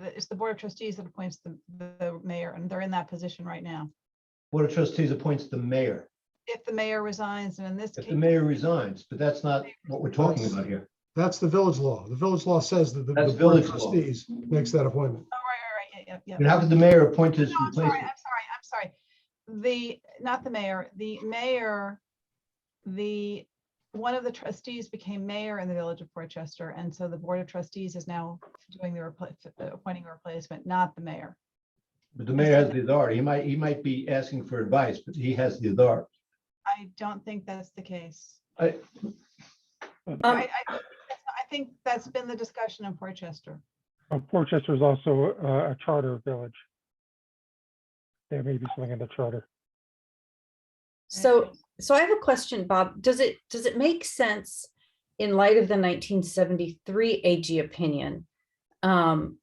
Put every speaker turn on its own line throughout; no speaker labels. it's the Board of Trustees that appoints the, the mayor, and they're in that position right now.
Board of Trustees appoints the mayor.
If the mayor resigns, and in this
If
case,
the mayor resigns, but that's not what we're talking about here.
That's the village law. The village law says that the
That's
the board of
village law.
trustees makes that appointment.
oh, right, right, right, yeah, yeah,
And
yeah.
how could the mayor appoint his
No, I'm sorry, I'm
replacement?
sorry, I'm sorry. The, not the mayor, the mayor, the, one of the trustees became mayor in the village of Portchester, and so the Board of Trustees is now doing the, repla- uh, appointing a replacement, not the mayor.
But the mayor has the authority. He might, he might be asking for advice, but he has the authority.
I don't think that's the case.
I-
Um,
I, I, I think that's been the discussion in Portchester.
Uh, Portchester is also uh, a charter village. There may be something in the charter.
So, so I have a question, Bob. Does it, does it make sense in light of the nineteen seventy-three AG opinion? um,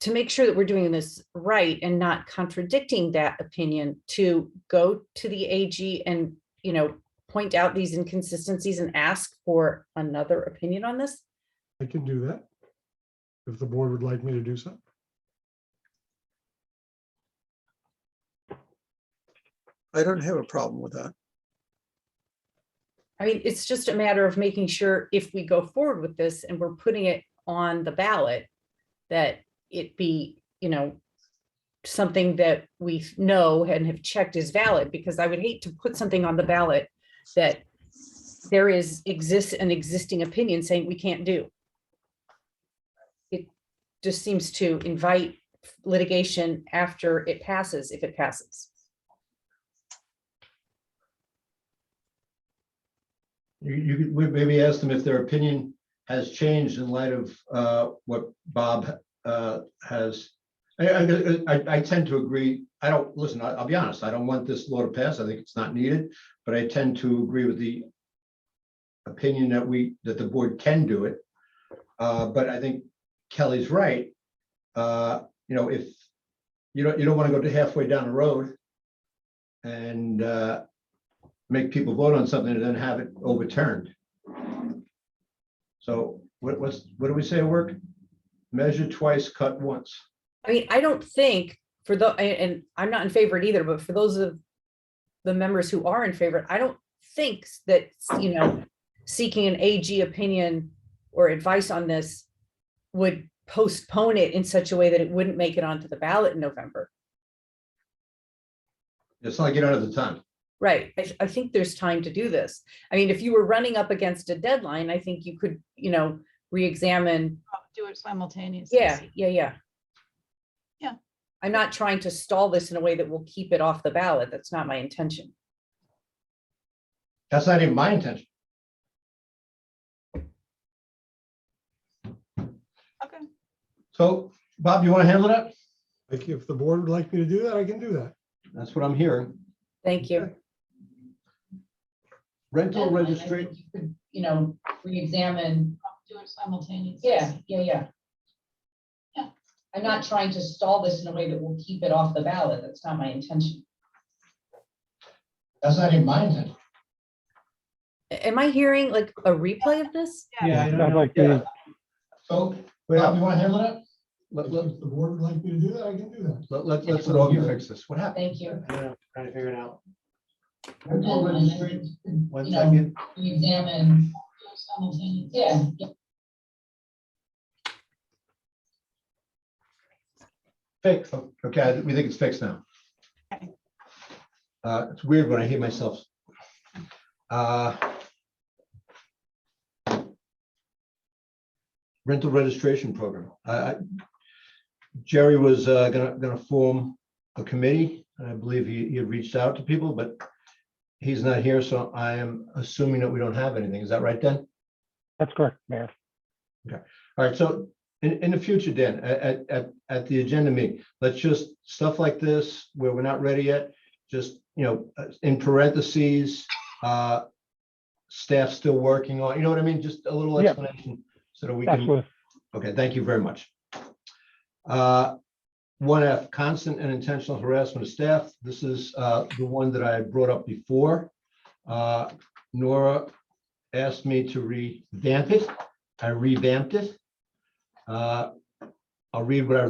To make sure that we're doing this right and not contradicting that opinion to go to the AG and, you know, point out these inconsistencies and ask for another opinion on this?
I can do that. If the board would like me to do so.
I don't have a problem with that.
I mean, it's just a matter of making sure if we go forward with this and we're putting it on the ballot, that it be, you know, something that we know and have checked is valid, because I would hate to put something on the ballot that there is, exists an existing opinion saying we can't do. It just seems to invite litigation after it passes, if it passes.
You, you could we- maybe ask them if their opinion has changed in light of uh, what Bob uh, has. I, I- I, I tend to agree. I don't, listen, I- I'll be honest, I don't want this law to pass. I think it's not needed, but I tend to agree with the opinion that we, that the board can do it. Uh, But I think Kelly's right. Uh, You know, if, you don't, you don't want to go to halfway down the road and uh, make people vote on something and then have it overturned. So what, what's, what do we say at work? Measure twice, cut once.
I mean, I don't think for the, a- and I'm not in favor of it either, but for those of the members who are in favor, I don't think that, you know, seeking an AG opinion or advice on this would postpone it in such a way that it wouldn't make it onto the ballot in November.
It's not like you don't have the time.
Right. I, I think there's time to do this. I mean, if you were running up against a deadline, I think you could, you know, reexamine
Do it simultaneously.
Yeah, yeah, yeah.
Yeah.
I'm not trying to stall this in a way that will keep it off the ballot. That's not my intention.
That's not even my intention.
Okay,
So Bob, you want to handle that?
Like, if the board would like me to do that, I can do that.
That's what I'm hearing.
Thank you.
Rental registration,
You know, reexamine.
do it simultaneously.
Yeah, yeah, yeah.
Yeah.
I'm not trying to stall this in a way that will keep it off the ballot. That's not my intention.
that's not even my intention.
Am I hearing like a replay of this?
Yeah,
I
it
don't
sounds
know.
like
Yeah.
the-
So Bob, you want to handle that?
If
Let, let,
the board would like me to do that, I can do that.
let- let, let's let Augie fix this. What happened?
Thank you.
Trying to figure it out.
Rental registration, one
You know,
second.
Reexamine. Yeah.
Fixed. Okay, I- we think it's fixed now.
Okay.
Uh, it's weird when I hear myself. Uh, Rental registration program. I, I, Jerry was uh, gonna, gonna form a committee. and I believe he, he had reached out to people, but he's not here, so I am assuming that we don't have anything. Is that right, Dan?
That's correct, Mayor.
All right, so in, in the future, Dan, at, at- at, at the agenda meeting, let's just, stuff like this, where we're not ready yet, just, you know, uh, in parentheses, uh, staff still working on, you know what I mean? Just a little
Yeah.
explanation so that we can,
Absolutely.
okay, thank you very much. Uh, One F, constant and intentional harassment of staff. This is uh, the one that I brought up before. Uh, Nora asked me to revamp it. I revamped it. Uh, I'll read what I